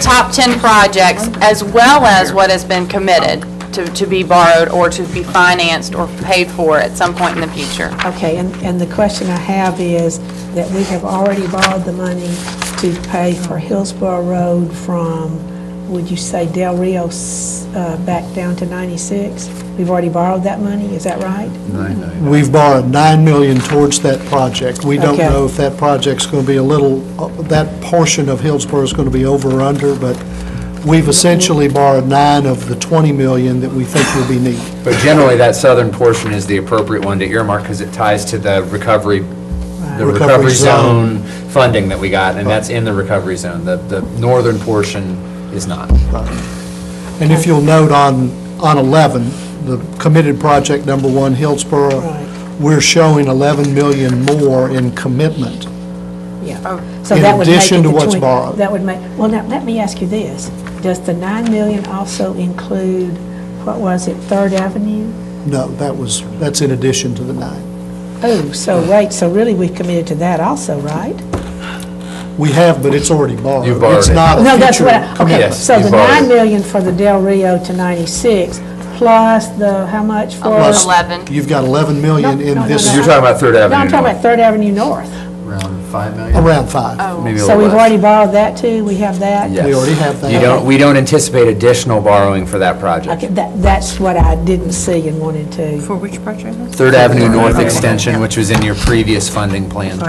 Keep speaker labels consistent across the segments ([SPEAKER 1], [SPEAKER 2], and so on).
[SPEAKER 1] top 10 projects, as well as what has been committed to to be borrowed or to be financed or paid for at some point in the future.
[SPEAKER 2] Okay, and, and the question I have is that we have already borrowed the money to pay for Hillsborough Road from, would you say Del Rio s- uh, back down to 96? We've already borrowed that money, is that right?
[SPEAKER 3] We've borrowed 9 million towards that project. We don't
[SPEAKER 2] Okay.
[SPEAKER 3] know if that project's going to be a little, uh, that portion of Hillsborough is going to be over or under, but we've essentially borrowed 9 of the 20 million that we think will be needed.
[SPEAKER 4] But generally, that southern portion is the appropriate one to earmark because it ties to the recovery, the
[SPEAKER 3] Recovery
[SPEAKER 4] recovery
[SPEAKER 3] zone.
[SPEAKER 4] zone funding that we got, and that's in the recovery zone. The, the northern portion is not.
[SPEAKER 3] And if you'll note on, on 11, the committed project number one, Hillsborough,
[SPEAKER 2] Right.
[SPEAKER 3] we're showing 11 million more in commitment.
[SPEAKER 2] Yeah. So
[SPEAKER 3] In
[SPEAKER 2] that would make
[SPEAKER 3] addition
[SPEAKER 2] it
[SPEAKER 3] to
[SPEAKER 2] the
[SPEAKER 3] what's
[SPEAKER 2] 20
[SPEAKER 3] borrowed.
[SPEAKER 2] That would make, well, now, let me ask you this. Does the 9 million also include, what was it, Third Avenue?
[SPEAKER 3] No, that was, that's in addition to the 9.
[SPEAKER 2] Oh, so, right, so really we've committed to that also, right?
[SPEAKER 3] We have, but it's already borrowed.
[SPEAKER 4] You've borrowed
[SPEAKER 3] It's
[SPEAKER 4] it.
[SPEAKER 3] not a
[SPEAKER 2] No, that's
[SPEAKER 3] future
[SPEAKER 2] what, I- okay,
[SPEAKER 4] Yes,
[SPEAKER 2] so
[SPEAKER 4] you
[SPEAKER 2] the
[SPEAKER 4] borrowed.
[SPEAKER 2] 9 million for the Del Rio to 96, plus the, how
[SPEAKER 4] Uh,
[SPEAKER 2] much for?
[SPEAKER 3] Plus,
[SPEAKER 1] 11.
[SPEAKER 3] You've got 11 million
[SPEAKER 2] No,
[SPEAKER 3] in
[SPEAKER 2] no,
[SPEAKER 3] this,
[SPEAKER 2] no,
[SPEAKER 4] You're talking about Third
[SPEAKER 2] No, I'm
[SPEAKER 4] Avenue
[SPEAKER 2] talking about
[SPEAKER 4] North.
[SPEAKER 2] Third Avenue North.
[SPEAKER 4] Around 5 million?
[SPEAKER 3] around five.
[SPEAKER 4] Maybe a
[SPEAKER 2] Oh. So
[SPEAKER 4] little
[SPEAKER 2] we've
[SPEAKER 4] less.
[SPEAKER 2] already borrowed that too, we have that?
[SPEAKER 4] Yes.
[SPEAKER 3] We already have that.
[SPEAKER 4] You don't, we don't anticipate additional borrowing for that
[SPEAKER 2] Okay,
[SPEAKER 4] project.
[SPEAKER 2] that, that's what I didn't see and wanted to,
[SPEAKER 5] For which project? was it?
[SPEAKER 4] Third Avenue North Extension, which was in your previous funding plan.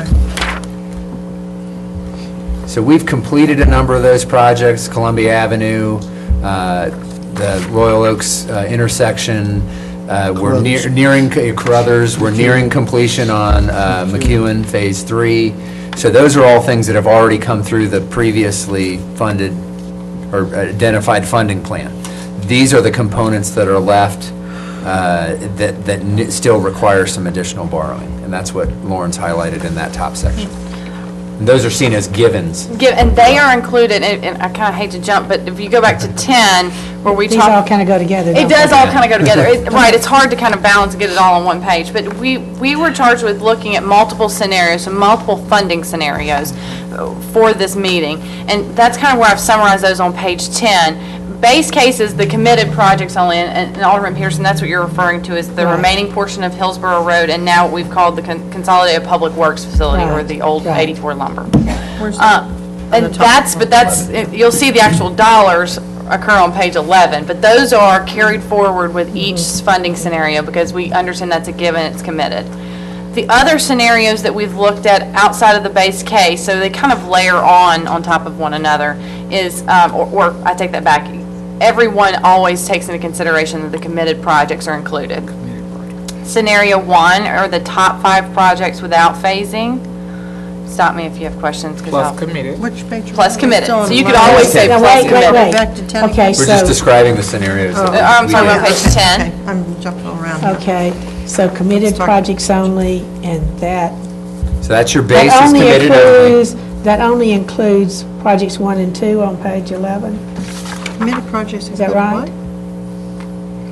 [SPEAKER 4] So we've completed a number of those projects, Columbia Avenue, uh, the Royal Oaks uh, intersection. uh, We're near-
[SPEAKER 3] Carruthers.
[SPEAKER 4] nearing, uh, Carruthers, we're nearing completion on uh, McEwen Phase 3. So those are all things that have already come through the previously funded or identified funding plan. These are the components that are left uh, that that n- still require some additional borrowing. And that's what Lauren's highlighted in that top section. And Those are seen as givens.
[SPEAKER 1] Give- And they are included, and and I kind of hate to jump, but if you go back to 10, where we
[SPEAKER 2] these all
[SPEAKER 1] talk.
[SPEAKER 2] kind of go together.
[SPEAKER 1] It
[SPEAKER 2] don't they?
[SPEAKER 1] does all kind of go together, It- right, it's hard to kind of balance and get it all on one page, but we, we were charged with looking at multiple scenarios and multiple funding scenarios uh, for this meeting, and that's kind of where I've summarized those on page 10. Base case is the committed projects only, and and Alderman Pearson, that's what you're referring to, is the
[SPEAKER 2] Right.
[SPEAKER 1] remaining portion of Hillsborough Road, and now what we've called the con- Consolidated Public Works Facility, or
[SPEAKER 2] Right,
[SPEAKER 1] the old
[SPEAKER 2] right.
[SPEAKER 1] 84 lumber.
[SPEAKER 5] Where's
[SPEAKER 1] Uh,
[SPEAKER 5] that?
[SPEAKER 1] And that's, but that's, you'll see the actual dollars occur on page 11, but those are carried forward with each funding scenario because we understand that's a given, it's committed. The other scenarios that we've looked at outside of the base case, so they kind of layer on, on top of one another, is, um, or- or, I take that back, everyone always takes into consideration that the committed projects are included. Scenario one are the top five projects without phasing. Stop me if you have questions, because I'll...
[SPEAKER 5] Which page?
[SPEAKER 1] Plus committed.
[SPEAKER 5] Still
[SPEAKER 1] So you
[SPEAKER 5] in
[SPEAKER 1] could
[SPEAKER 5] line.
[SPEAKER 1] always say
[SPEAKER 2] Now,
[SPEAKER 1] plus
[SPEAKER 2] wait, wait,
[SPEAKER 1] committed.
[SPEAKER 2] wait.
[SPEAKER 5] Back to 10
[SPEAKER 2] Okay,
[SPEAKER 4] We're just
[SPEAKER 2] so,
[SPEAKER 4] describing the scenarios. that
[SPEAKER 1] Uh, I'm
[SPEAKER 4] we
[SPEAKER 1] sorry,
[SPEAKER 4] did.
[SPEAKER 1] on page 10.
[SPEAKER 5] Okay, I'm jumping around. now.
[SPEAKER 2] okay, so committed
[SPEAKER 5] talk-
[SPEAKER 2] projects only, and that,
[SPEAKER 4] So that's your base
[SPEAKER 2] that
[SPEAKER 4] is
[SPEAKER 2] only
[SPEAKER 4] committed only.
[SPEAKER 2] includes, that only includes projects one and two on page 11?
[SPEAKER 5] Committed projects.
[SPEAKER 2] Is that right?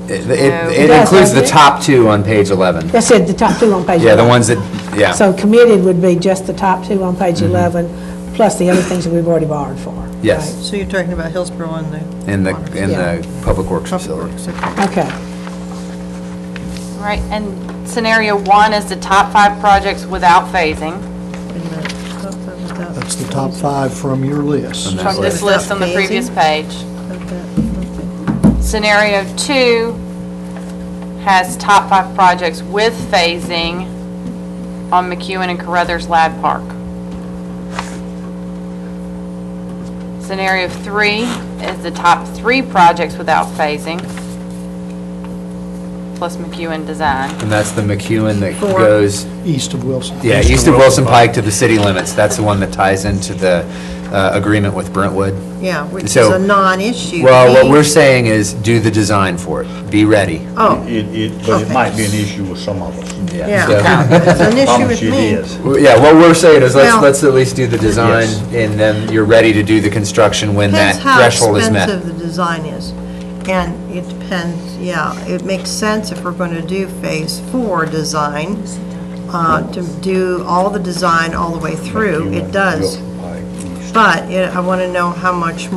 [SPEAKER 4] It- It it
[SPEAKER 2] does,
[SPEAKER 4] includes the
[SPEAKER 2] doesn't it?
[SPEAKER 4] top two on page 11.
[SPEAKER 2] That said, the top two on page 11.
[SPEAKER 4] Yeah, the ones that, yeah. Mm-hmm.
[SPEAKER 2] So committed would be just the top two on page 11, plus the other things that we've already borrowed for.
[SPEAKER 4] Yes.
[SPEAKER 5] So you're talking about Hillsborough and the.
[SPEAKER 4] In the, in
[SPEAKER 2] Yeah.
[SPEAKER 4] the public works
[SPEAKER 5] Public
[SPEAKER 4] facility.
[SPEAKER 5] Works, okay.
[SPEAKER 2] right? Okay.
[SPEAKER 1] Right, and scenario one is the top five projects without phasing
[SPEAKER 5] Wait a minute. Thought that was that.
[SPEAKER 3] That's the top five from your list.
[SPEAKER 1] from this list on the previous page.
[SPEAKER 5] Thought that-
[SPEAKER 1] Scenario two has top five projects with phasing on McEwen and Carruthers Lad Park. Scenario three is the top three projects without phasing, plus McEwen Design.
[SPEAKER 4] And that's the McEwen that goes,
[SPEAKER 3] East of Wilson.
[SPEAKER 4] yeah, east of Wilson Pike to the city limits. That's the one that ties into the uh, agreement with Brentwood.
[SPEAKER 5] Yeah, which is
[SPEAKER 4] So-
[SPEAKER 5] a non-issue.
[SPEAKER 4] Well, what
[SPEAKER 5] fee.
[SPEAKER 4] we're saying is do the design for it. Be ready.
[SPEAKER 5] Oh,
[SPEAKER 6] It, it, but it
[SPEAKER 5] Okay.
[SPEAKER 6] might be an issue with some of us.
[SPEAKER 5] yeah, it's an issue
[SPEAKER 6] Promise
[SPEAKER 5] with
[SPEAKER 6] you it
[SPEAKER 5] me.
[SPEAKER 6] is.
[SPEAKER 4] Well, Yeah, what we're saying is let's,
[SPEAKER 5] Well-
[SPEAKER 4] let's at least do the design
[SPEAKER 6] Yes.
[SPEAKER 4] and then you're ready to do the construction when that
[SPEAKER 5] Depends how
[SPEAKER 4] threshold is met.
[SPEAKER 5] expensive the design is. And it depends, yeah, it makes sense if we're going to do phase four design, uh, to do all the design all the way through,
[SPEAKER 6] You
[SPEAKER 5] it
[SPEAKER 6] know,
[SPEAKER 5] does.
[SPEAKER 6] you'll- I-
[SPEAKER 5] But it- I want to know how much